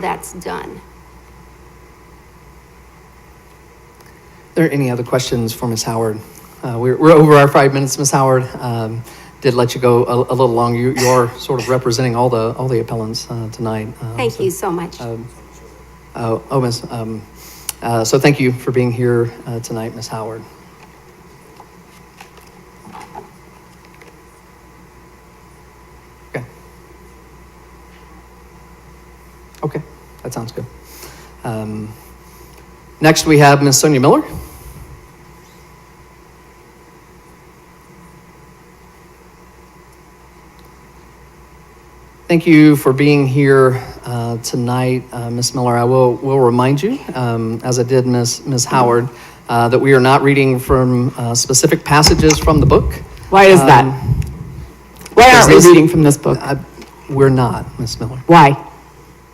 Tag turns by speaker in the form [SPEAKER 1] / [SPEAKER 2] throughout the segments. [SPEAKER 1] that's done.
[SPEAKER 2] Are there any other questions for Ms. Howard? Uh, We're we're over our five minutes, Ms. Howard. Um, Did let you go a a little long. You you are sort of representing all the, all the appellants uh, tonight. um,
[SPEAKER 1] Thank
[SPEAKER 2] so-
[SPEAKER 1] you so much.
[SPEAKER 2] Oh, oh, Ms., um, uh, so thank you for being here uh, tonight, Ms. Howard. Okay. Okay, that sounds good. Um, Next, we have Ms. Sonia Miller. Thank you for being here uh, tonight, uh, Ms. Miller. I will, will remind you, um, as I did Ms. Ms. Howard, uh, that we are not reading from uh, specific passages from the book.
[SPEAKER 3] Why is that?
[SPEAKER 2] Um,
[SPEAKER 3] Why
[SPEAKER 2] because
[SPEAKER 3] aren't we
[SPEAKER 2] this-
[SPEAKER 3] reading from this book?
[SPEAKER 2] I- We're not, Ms. Miller.
[SPEAKER 3] Why?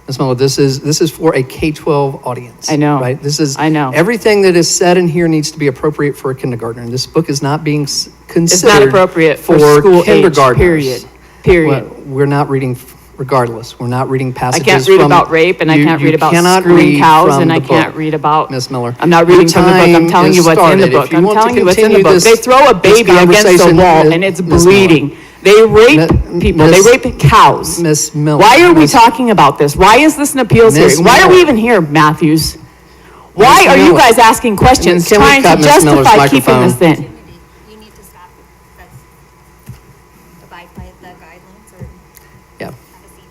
[SPEAKER 2] Ms. Miller, this is, this is for a K-12 audience.
[SPEAKER 3] I know.
[SPEAKER 2] Right? This is.
[SPEAKER 3] I know.
[SPEAKER 2] Everything that is said in here needs to be appropriate for a kindergartner. And this book is not being s-
[SPEAKER 3] It's
[SPEAKER 2] considered.
[SPEAKER 3] not appropriate for school age,
[SPEAKER 2] kindergartners.
[SPEAKER 3] period. Period.
[SPEAKER 2] Well, We're not reading, regardless, we're not reading
[SPEAKER 3] I
[SPEAKER 2] passages from.
[SPEAKER 3] can't read about rape and I
[SPEAKER 2] You-
[SPEAKER 3] can't
[SPEAKER 2] you
[SPEAKER 3] read about
[SPEAKER 2] cannot
[SPEAKER 3] screaming
[SPEAKER 2] read
[SPEAKER 3] cows
[SPEAKER 2] from
[SPEAKER 3] and I
[SPEAKER 2] the
[SPEAKER 3] can't
[SPEAKER 2] book,
[SPEAKER 3] read about.
[SPEAKER 2] Ms. Miller.
[SPEAKER 3] I'm not
[SPEAKER 2] Your
[SPEAKER 3] reading from the book. I'm
[SPEAKER 2] time
[SPEAKER 3] telling
[SPEAKER 2] is
[SPEAKER 3] you what's in
[SPEAKER 2] started.
[SPEAKER 3] the
[SPEAKER 2] If
[SPEAKER 3] book.
[SPEAKER 2] you
[SPEAKER 3] I'm
[SPEAKER 2] want to
[SPEAKER 3] telling you what's in the
[SPEAKER 2] continue
[SPEAKER 3] book. They
[SPEAKER 2] this-
[SPEAKER 3] throw a
[SPEAKER 2] this
[SPEAKER 3] baby against a
[SPEAKER 2] conversation,
[SPEAKER 3] wall
[SPEAKER 2] Mi-
[SPEAKER 3] and it's
[SPEAKER 2] Ms. Miller.
[SPEAKER 3] bleeding. They rape
[SPEAKER 2] Mi-
[SPEAKER 3] people. They
[SPEAKER 2] Ms.
[SPEAKER 3] rape cows.
[SPEAKER 2] Ms. Miller,
[SPEAKER 3] Why are we
[SPEAKER 2] Ms.
[SPEAKER 3] talking about this? Why is this an appeals
[SPEAKER 2] Ms.
[SPEAKER 3] hearing? Why are we
[SPEAKER 2] Miller.
[SPEAKER 3] even here, Matthews? Why
[SPEAKER 2] Ms.
[SPEAKER 3] are you
[SPEAKER 2] Miller.
[SPEAKER 3] guys asking questions,
[SPEAKER 2] Can we
[SPEAKER 3] trying
[SPEAKER 2] cut
[SPEAKER 3] to
[SPEAKER 2] Ms. Miller's
[SPEAKER 3] justify keeping this
[SPEAKER 2] microphone?
[SPEAKER 3] in?
[SPEAKER 4] You need to stop, that's, abide by the guidelines or
[SPEAKER 2] Yeah,
[SPEAKER 4] have a seat.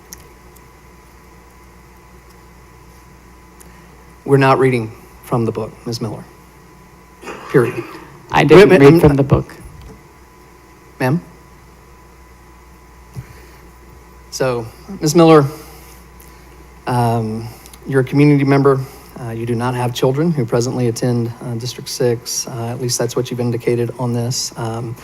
[SPEAKER 2] we're not reading from the book, Ms. Miller. Period.
[SPEAKER 3] I
[SPEAKER 2] Wait,
[SPEAKER 3] didn't
[SPEAKER 2] wait,
[SPEAKER 3] read
[SPEAKER 2] I'm-
[SPEAKER 3] from the book.
[SPEAKER 2] Ma'am? So, Ms. Miller, um, you're a community member. Uh, You do not have children who presently attend uh, District 6. Uh, At least that's what you've indicated on this. Um,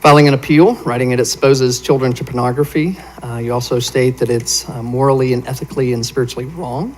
[SPEAKER 2] Filing an appeal, writing it exposes children to pornography. Uh, You also state that it's uh, morally and ethically and spiritually wrong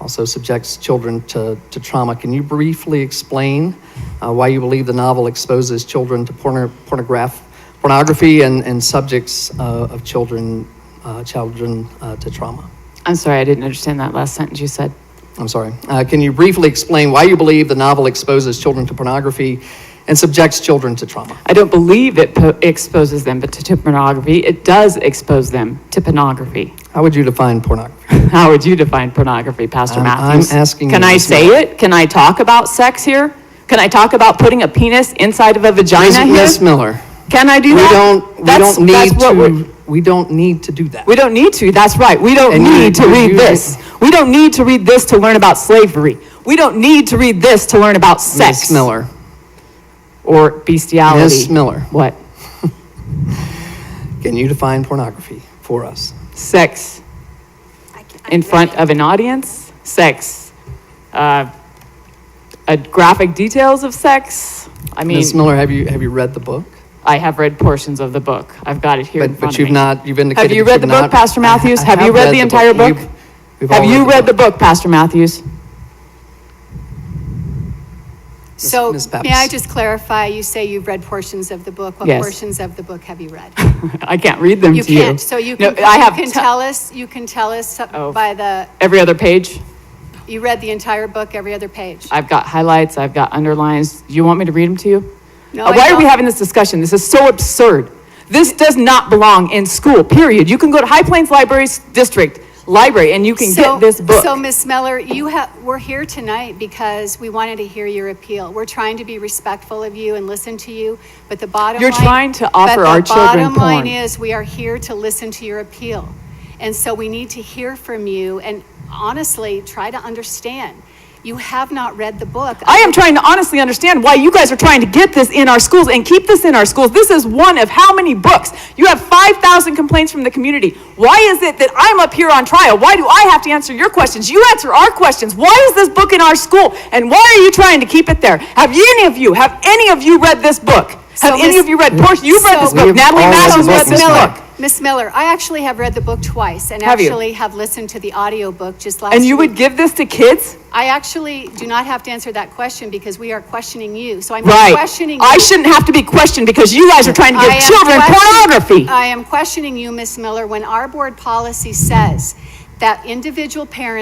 [SPEAKER 2] also subjects children to, to trauma. Can you briefly explain uh, why you believe the novel exposes children to porno, pornograph, pornography and, and subjects uh, of children, uh, children uh, to trauma?
[SPEAKER 3] I'm sorry, I didn't understand that last sentence you said.
[SPEAKER 2] I'm sorry. Uh, can you briefly explain why you believe the novel exposes children to pornography and subjects children to trauma?
[SPEAKER 3] I don't believe it po- exposes them but to, to pornography. It does expose them to pornography.
[SPEAKER 2] How would you define pornography?
[SPEAKER 3] How would you define pornography, Pastor
[SPEAKER 2] Um, I'm- I'm
[SPEAKER 3] Matthews?
[SPEAKER 2] asking
[SPEAKER 3] Can
[SPEAKER 2] you
[SPEAKER 3] I
[SPEAKER 2] this
[SPEAKER 3] say it? Can I talk about sex here? Can I talk about putting a penis inside of a vagina here?
[SPEAKER 2] Ms. Miller,
[SPEAKER 3] Can I do
[SPEAKER 2] we
[SPEAKER 3] that?
[SPEAKER 2] don't, we
[SPEAKER 3] That's-
[SPEAKER 2] don't
[SPEAKER 3] that's
[SPEAKER 2] need
[SPEAKER 3] what we're-
[SPEAKER 2] to, we don't need to do that.
[SPEAKER 3] We don't need to, that's right. We don't
[SPEAKER 2] And you-
[SPEAKER 3] need to
[SPEAKER 2] you- you-
[SPEAKER 3] read this. We don't need to read this to learn about slavery. We don't need to read this to learn about sex.
[SPEAKER 2] Ms. Miller.
[SPEAKER 3] Or bestiality.
[SPEAKER 2] Ms. Miller.
[SPEAKER 3] What?
[SPEAKER 2] Can you define pornography for us?
[SPEAKER 3] Sex in front of an audience, sex, uh, uh, graphic details of sex. I mean,
[SPEAKER 2] Ms. Miller, have you, have you read the book?
[SPEAKER 3] I have read portions of the book. I've got it here in
[SPEAKER 2] But,
[SPEAKER 3] front
[SPEAKER 2] but
[SPEAKER 3] of me.
[SPEAKER 2] you've not, you've indicated.
[SPEAKER 3] Have you
[SPEAKER 2] that
[SPEAKER 3] read
[SPEAKER 2] you've
[SPEAKER 3] the book,
[SPEAKER 2] not-
[SPEAKER 3] Pastor
[SPEAKER 2] I- I
[SPEAKER 3] Matthews? Have you
[SPEAKER 2] have
[SPEAKER 3] read the entire book?
[SPEAKER 2] We've- we've all
[SPEAKER 3] Have you read the book, Pastor Matthews?
[SPEAKER 5] So,
[SPEAKER 2] Ms.
[SPEAKER 5] may I
[SPEAKER 2] Pappas.
[SPEAKER 5] just clarify, you say you've read portions of the book. What
[SPEAKER 3] Yes.
[SPEAKER 5] portions of the book have you read?
[SPEAKER 3] I can't read them
[SPEAKER 5] You
[SPEAKER 3] to you.
[SPEAKER 5] can't, so you
[SPEAKER 3] No,
[SPEAKER 5] can,
[SPEAKER 3] I have
[SPEAKER 5] you can
[SPEAKER 3] te-
[SPEAKER 5] tell us, you can tell us
[SPEAKER 3] Oh.
[SPEAKER 5] by the,
[SPEAKER 3] every other page.
[SPEAKER 5] you read the entire book, every other page.
[SPEAKER 3] I've got highlights, I've got underlines. Do you want me to read them to you?
[SPEAKER 5] No,
[SPEAKER 3] Uh,
[SPEAKER 5] I
[SPEAKER 3] Why are we
[SPEAKER 5] don't.
[SPEAKER 3] having this discussion? This is so absurd. This does not belong in school, period. You can go to High Plains Libraries District Library and you can
[SPEAKER 5] So-
[SPEAKER 3] get this book.
[SPEAKER 5] So, Ms. Miller, you have, we're here tonight because we wanted to hear your appeal. We're trying to be respectful of you and listen to you, but the bottom
[SPEAKER 3] You're
[SPEAKER 5] line-
[SPEAKER 3] trying to
[SPEAKER 5] but
[SPEAKER 3] offer
[SPEAKER 5] the
[SPEAKER 3] our children
[SPEAKER 5] Bottom line
[SPEAKER 3] porn.
[SPEAKER 5] is, we are here to listen to your appeal. And so we need to hear from you and honestly, try to understand. You have not read the book.
[SPEAKER 3] I am trying to honestly understand why you guys are trying to get this in our schools and keep this in our schools. This is one of how many books? You have 5,000 complaints from the community. Why is it that I'm up here on trial? Why do I have to answer your questions? You answer our questions. Why is this book in our school? And why are you trying to keep it there? Have you- any of you, have any of you read this book? Have
[SPEAKER 5] So,
[SPEAKER 3] any
[SPEAKER 5] Miss-
[SPEAKER 3] of you read Portia? You've read this
[SPEAKER 5] So-
[SPEAKER 3] book.
[SPEAKER 2] We've
[SPEAKER 3] Natalie
[SPEAKER 2] all read
[SPEAKER 3] Matthews
[SPEAKER 2] the
[SPEAKER 3] read
[SPEAKER 2] book, Miss
[SPEAKER 3] this
[SPEAKER 2] Miller.
[SPEAKER 3] book.
[SPEAKER 5] Miss Miller, I actually have read the book twice and
[SPEAKER 3] Have you?
[SPEAKER 5] actually have listened to the audiobook just last
[SPEAKER 3] And you would
[SPEAKER 5] week.
[SPEAKER 3] give this to kids?
[SPEAKER 5] I actually do not have to answer that question because we are questioning you. So I'm
[SPEAKER 3] Right.
[SPEAKER 5] questioning you.
[SPEAKER 3] I shouldn't have to be questioned because you guys are trying to
[SPEAKER 5] I
[SPEAKER 3] give
[SPEAKER 5] am
[SPEAKER 3] children
[SPEAKER 5] question-
[SPEAKER 3] pornography.
[SPEAKER 5] I am questioning you, Miss Miller, when our board policy says that individual parent